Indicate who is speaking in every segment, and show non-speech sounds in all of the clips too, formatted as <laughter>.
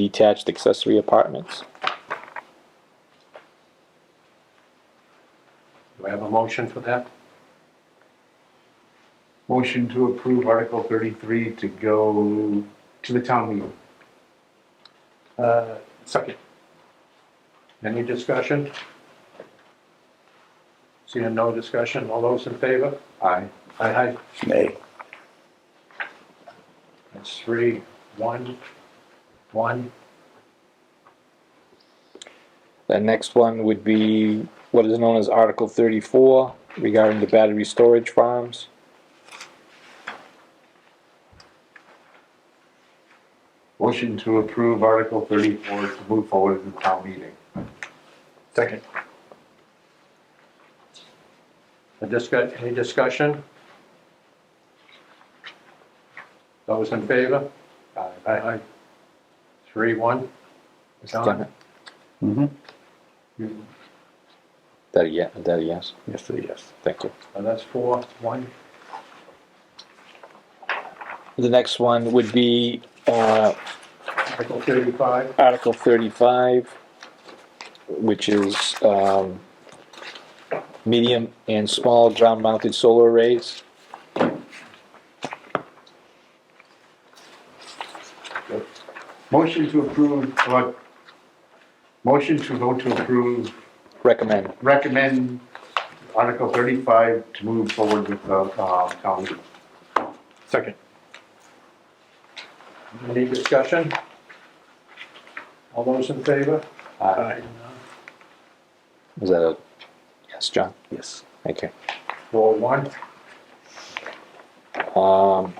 Speaker 1: detached accessory apartments.
Speaker 2: Do I have a motion for that?
Speaker 3: Motion to approve Article thirty-three to go to the town meeting.
Speaker 2: Uh, second. Any discussion? Seeing no discussion, all those in favor?
Speaker 3: Aye.
Speaker 2: Aye, aye.
Speaker 4: Nay.
Speaker 2: That's three, one, one.
Speaker 1: The next one would be what is known as Article 34 regarding the battery storage farms.
Speaker 3: Motion to approve Article thirty-four to move forward to the town meeting.
Speaker 2: Second. A discuss, any discussion? Those in favor? Aye, aye. Three, one.
Speaker 1: Mr.
Speaker 2: John?
Speaker 1: Chairman,
Speaker 4: Mm-hmm.
Speaker 2: You-
Speaker 1: That a ye- that a yes?
Speaker 4: Yes, sir, yes.
Speaker 1: Thank you.
Speaker 2: uh, That's four, one.
Speaker 1: The next one would be uh,
Speaker 2: Article thirty-five,
Speaker 1: Article 35, which is um, medium and small ground-mounted solar arrays.
Speaker 3: Motion to approve, what? Motion to vote to approve,
Speaker 1: Recommend.
Speaker 3: recommend Article thirty-five to move forward with the, uh, town meeting.
Speaker 4: Second.
Speaker 2: any discussion? All those in favor?
Speaker 4: Aye.
Speaker 1: Is that a yes, John?
Speaker 4: Yes.
Speaker 1: Thank you.
Speaker 2: Four, one.
Speaker 1: Um,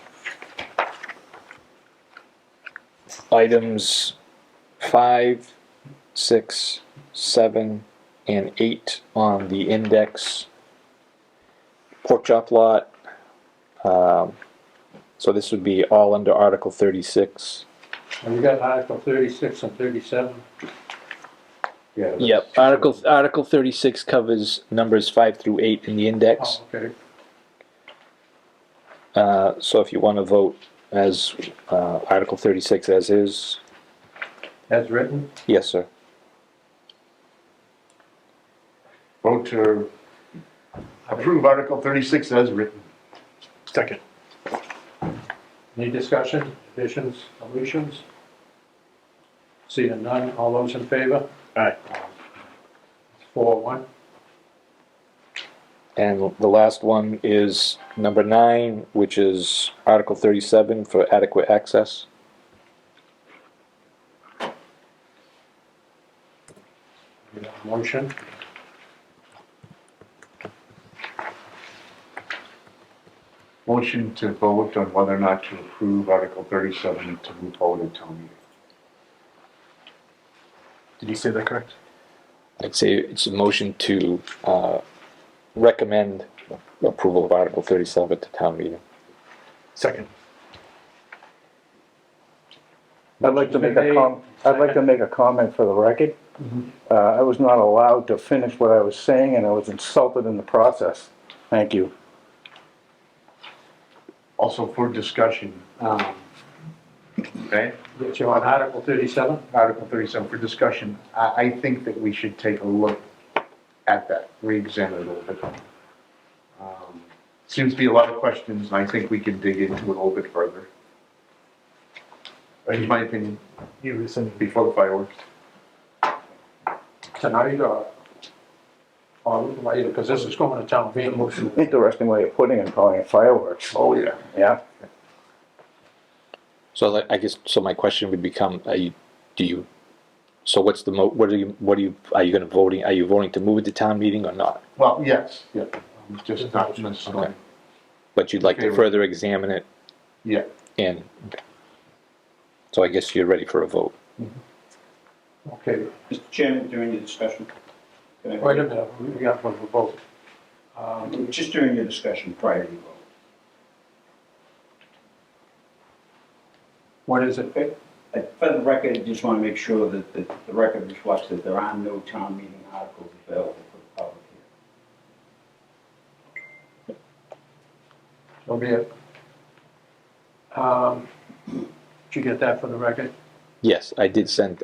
Speaker 1: items five, six, seven, and eight on the index. Pork chop lot. Um, so this would be all under Article thirty-six.
Speaker 2: And we got Article thirty-six and thirty-seven.
Speaker 3: Yeah.
Speaker 1: Yep, Article, Article thirty-six covers numbers five through eight in the index.
Speaker 2: Oh, okay.
Speaker 1: Uh, so if you want to vote as, uh, Article thirty-six as is,
Speaker 2: As written,
Speaker 1: yes, sir.
Speaker 3: Vote to approve Article thirty-six as written.
Speaker 4: Second.
Speaker 2: any discussion, additions, deletions? Seeing none, all those in favor?
Speaker 4: Aye.
Speaker 2: Four, one.
Speaker 1: And the last one is number nine, which is Article thirty-seven for adequate access.
Speaker 2: We have a Motion.
Speaker 3: Motion to vote on whether or not to approve Article thirty-seven to move forward to town meeting.
Speaker 4: Did you say that correct?
Speaker 1: I'd say it's a motion to, uh, recommend approval of Article thirty-seven to town meeting.
Speaker 4: Second.
Speaker 5: I'd like to make a com, I'd like to make a comment for the record. Uh, I was not allowed to finish what I was saying and I was insulted in the process. Thank you.
Speaker 3: Also for discussion, um, okay,
Speaker 2: Get you on Article thirty-seven?
Speaker 3: Article thirty-seven for discussion, I, I think that we should take a look at that, re-examine it a little bit. Um, Seems to be a lot of questions, and I think we can dig into it a little bit further. In my opinion,
Speaker 4: You rescind.
Speaker 3: before the fireworks.
Speaker 2: Tonight, or, or later, because this is going to town meeting. Motion.
Speaker 4: <laughs>
Speaker 5: Interesting way of putting it, calling it fireworks.
Speaker 3: Oh, yeah.
Speaker 5: Yeah,
Speaker 1: So like, I guess, so my question would become, are you, do you, so what's the mo, what are you, what are you, are you gonna voting, are you voting to move it to town meeting or not?
Speaker 3: Well, yes, yeah, um, just not necessarily,
Speaker 1: Okay. But you'd like to
Speaker 3: Favor.
Speaker 1: further examine it
Speaker 3: yeah.
Speaker 1: and, so I guess you're ready for a vote.
Speaker 2: Okay,
Speaker 6: Mr. Chairman, during your discussion, can I-
Speaker 2: wait a minute, we got one for both. Um,
Speaker 6: just during your discussion prior to your vote,
Speaker 2: What is it?
Speaker 6: okay? Uh, For the record, I just want to make sure that that the record reflects that there are no town meeting articles available for the public here.
Speaker 2: So be it. Um, Did you get that for the record?
Speaker 1: Yes, I did send